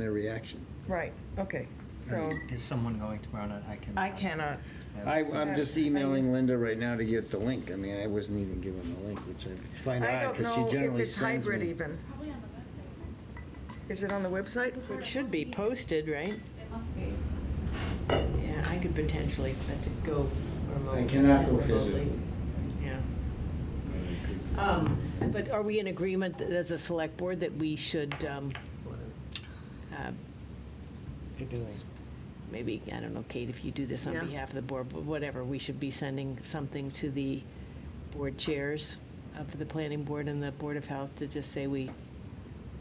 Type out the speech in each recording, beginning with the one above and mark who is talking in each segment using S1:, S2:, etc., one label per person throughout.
S1: their reaction.
S2: Right, okay, so
S3: Is someone going tomorrow night? I can.
S2: I cannot,
S1: I, I'm just emailing Linda right now to get the link. I mean, I wasn't even given the link, which I
S2: I
S1: find odd,
S2: don't
S1: because she
S2: know if
S1: generally
S2: it's
S1: sends
S2: hybrid
S1: me.
S2: even.
S4: Probably on the website.
S2: Is it on the website?
S5: It should be posted, right?
S4: It must be.
S5: Yeah, I could potentially, but to go
S1: I
S5: remotely.
S1: cannot go
S5: remotely,
S1: physically.
S5: Yeah. Um, But are we in agreement that as a select board that we should, um, uh, maybe, I don't know, Kate, if you do this on
S2: Yeah.
S5: behalf of the board, but whatever, we should be sending something to the board chairs of the planning board and the Board of Health to just say we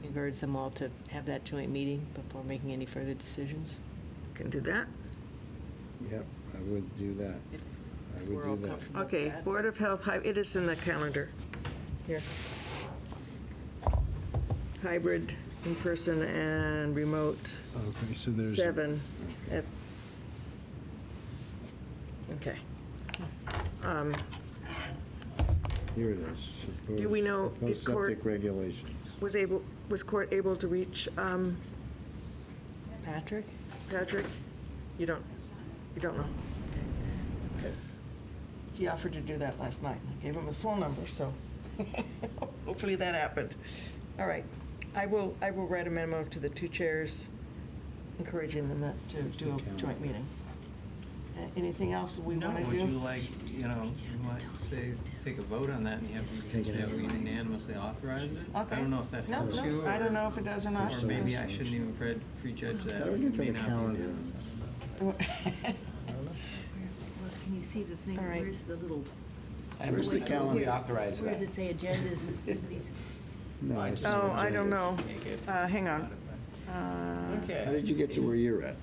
S5: encourage them all to have that joint meeting before making any further decisions?
S2: Can do that.
S1: Yep, I would do that.
S5: If-
S1: I
S5: if
S1: would
S5: we're all
S1: do that.
S5: comfortable with
S2: Okay,
S5: that.
S2: Board of Health, hy- it is in the calendar. Here. Hybrid, in-person and remote,
S1: Okay, so there's.
S2: seven. at- Okay. Um,
S1: Here it is.
S2: Do we know- did
S1: Proposed
S2: court-
S1: septic regulations.
S2: Was able, was court able to reach um,
S5: Patrick?
S2: Patrick? You don't, you don't know? Because he offered to do that last night. I gave him his phone number, so hopefully that happened. All right. I will, I will write a memo to the two chairs encouraging them that- to do a joint meeting. Uh, Anything else we
S3: No,
S2: want to do?
S3: would you like, you know, you might say, take a vote on that and
S1: Just
S3: have,
S1: take it
S3: have we
S1: out.
S3: unanimously authorize it?
S2: Okay.
S3: I don't know if that
S2: No,
S3: helps you.
S2: no, I don't know if it does or not.
S3: Or maybe I shouldn't even pre- prejudge that.
S1: That was
S3: It may
S1: in the
S3: not be
S1: calendar.
S3: unanimous.
S5: Well, Can you see the thing,
S2: All right.
S5: where's the little?
S1: And Where's the
S5: where-
S1: calendar?
S5: where-
S6: Authorize
S5: Where
S6: that.
S5: does it say agendas?
S1: No, I just
S2: Oh,
S1: wanted to
S2: I
S1: do
S2: don't
S1: this.
S2: know.
S3: Make it
S2: Uh, hang on.
S3: modified.
S2: Uh,
S3: Okay.
S1: How did you get to where you're at?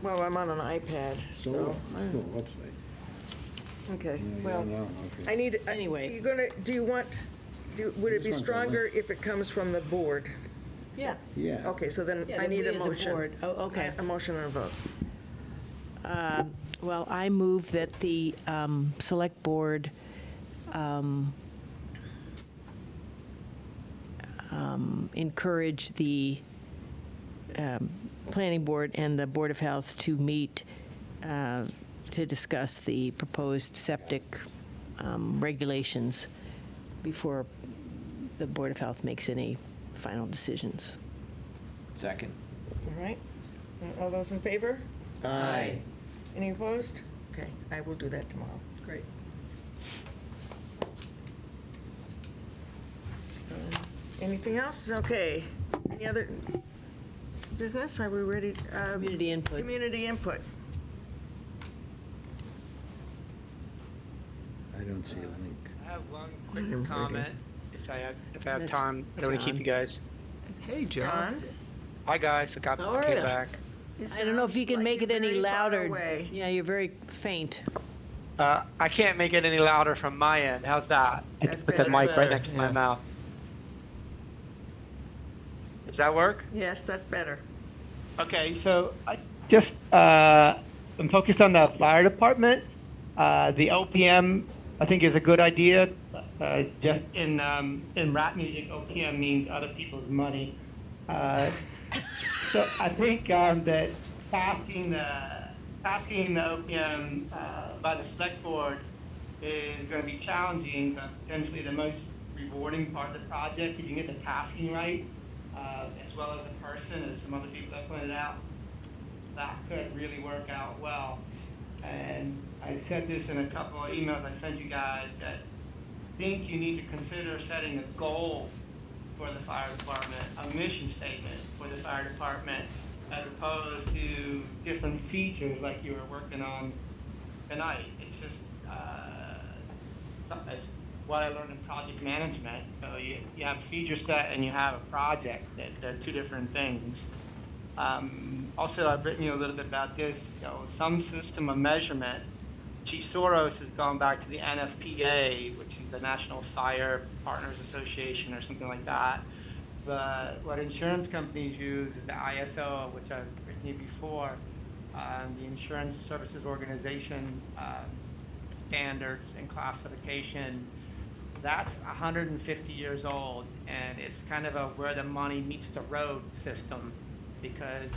S2: Well, I'm on an iPad, so,
S1: So, so website.
S2: okay,
S1: Yeah, you
S2: well.
S1: don't know, okay.
S2: I need, anyway.
S5: Anyway.
S2: You're gonna, do you want, do- would
S1: I
S2: it be
S1: just want the link.
S2: stronger if it comes from the board?
S5: Yeah.
S1: Yeah.
S2: Okay, so then
S5: Yeah,
S2: I
S5: then
S2: need
S5: we
S2: a
S5: as a
S2: motion.
S5: board. Oh, okay.
S2: A motion and a vote.
S5: Um, Well, I move that the um, Select Board um, um, encourage the um, Planning Board and the Board of Health to meet uh, to discuss the proposed septic um, regulations before the Board of Health makes any final decisions.
S6: Second.
S2: All right? All those in favor?
S1: Aye.
S2: Any opposed? Okay, I will do that tomorrow.
S3: Great.
S2: Um, Anything else? Okay. Any other business? Are we ready? uh,
S5: Community input.
S2: Community input.
S1: I don't see a link.
S7: I have one
S2: Mhm.
S7: quick comment, if I have, if I have
S5: That's
S7: time. I don't want to keep
S5: John.
S7: you guys.
S3: Hey, John.
S2: John?
S7: Hi, guys, I got
S5: How are
S7: paid
S5: ya?
S7: back.
S5: I don't know if you can
S2: Like
S5: make
S2: you're
S5: it any
S2: very far
S5: louder.
S2: away.
S5: Yeah, you're very faint.
S7: Uh, I can't make it any louder from my end, how's that? I
S2: That's
S7: just put the
S2: better.
S7: mic
S3: Better,
S7: right next to
S3: yeah.
S7: my mouth. Does that work?
S2: Yes, that's better.
S7: Okay, so I just uh, I'm focused on the fire department. Uh, the OPM I think is a good idea. Uh, just in um, in rap music, OPM means other people's money. Uh, so I think um, that passing the passing the OPM uh, by the select board is going to be challenging, but potentially the most rewarding part of the project if you can get the tasking right, uh, as well as the person, as some other people have pointed out. That could really work out well. And I said this in a couple of emails I sent you guys that I think you need to consider setting a goal for the fire department, a mission statement for the fire department, as opposed to different features like you were working on tonight. It's just, uh, some- it's what I learned in project management. So you, you have a feature set and you have a project, that, they're two different things. Um, also, I've written you a little bit about this, you know, some system of measurement. Chief Soros has gone back to the NFPA, which is the National Fire Partners Association or something like that. But what insurance companies use is the ISO, which I've written you before, um, the Insurance Services Organization um, standards and classification that's 150 years old, and it's kind of a where the money meets the road system. because